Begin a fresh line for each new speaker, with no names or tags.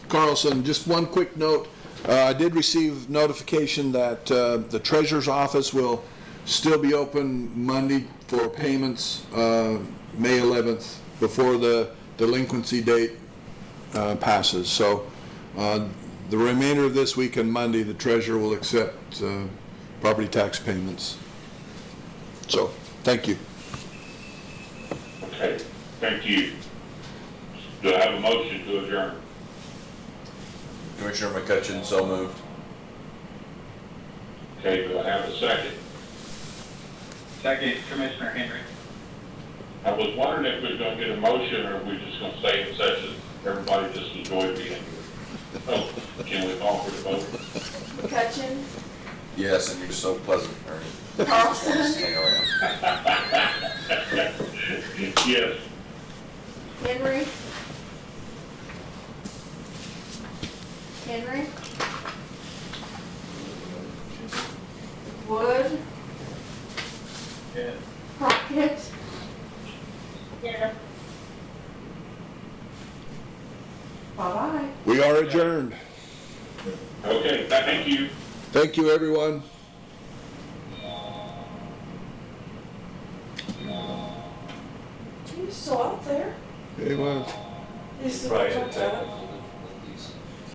Carlson, just one quick note. Uh, I did receive notification that uh, the treasurer's office will still be open Monday for payments, uh, May 11th, before the delinquency date uh, passes. So uh, the remainder of this week and Monday, the treasurer will accept uh, property tax payments. So, thank you.
Okay, thank you. Do I have a motion to adjourn?
Commissioner McCutcheon, so moved.
Okay, do I have a second?
Second, Commissioner Henry.
I was wondering if we we're gonna get a motion, or we're just gonna stay in session, everybody just enjoy being here. Oh, can we call for the vote?
McCutcheon,
Yes, and you're so pleasant, Ernie.
Carlson,
Hang around.
Yes,
Henry. Henry. Wood,
Yes.
Crockett,
Yeah.
bye-bye.
We are adjourned.
okay, thank you.
Thank you, everyone.
Are you still out there?
Hey, well,
Is the-
Right.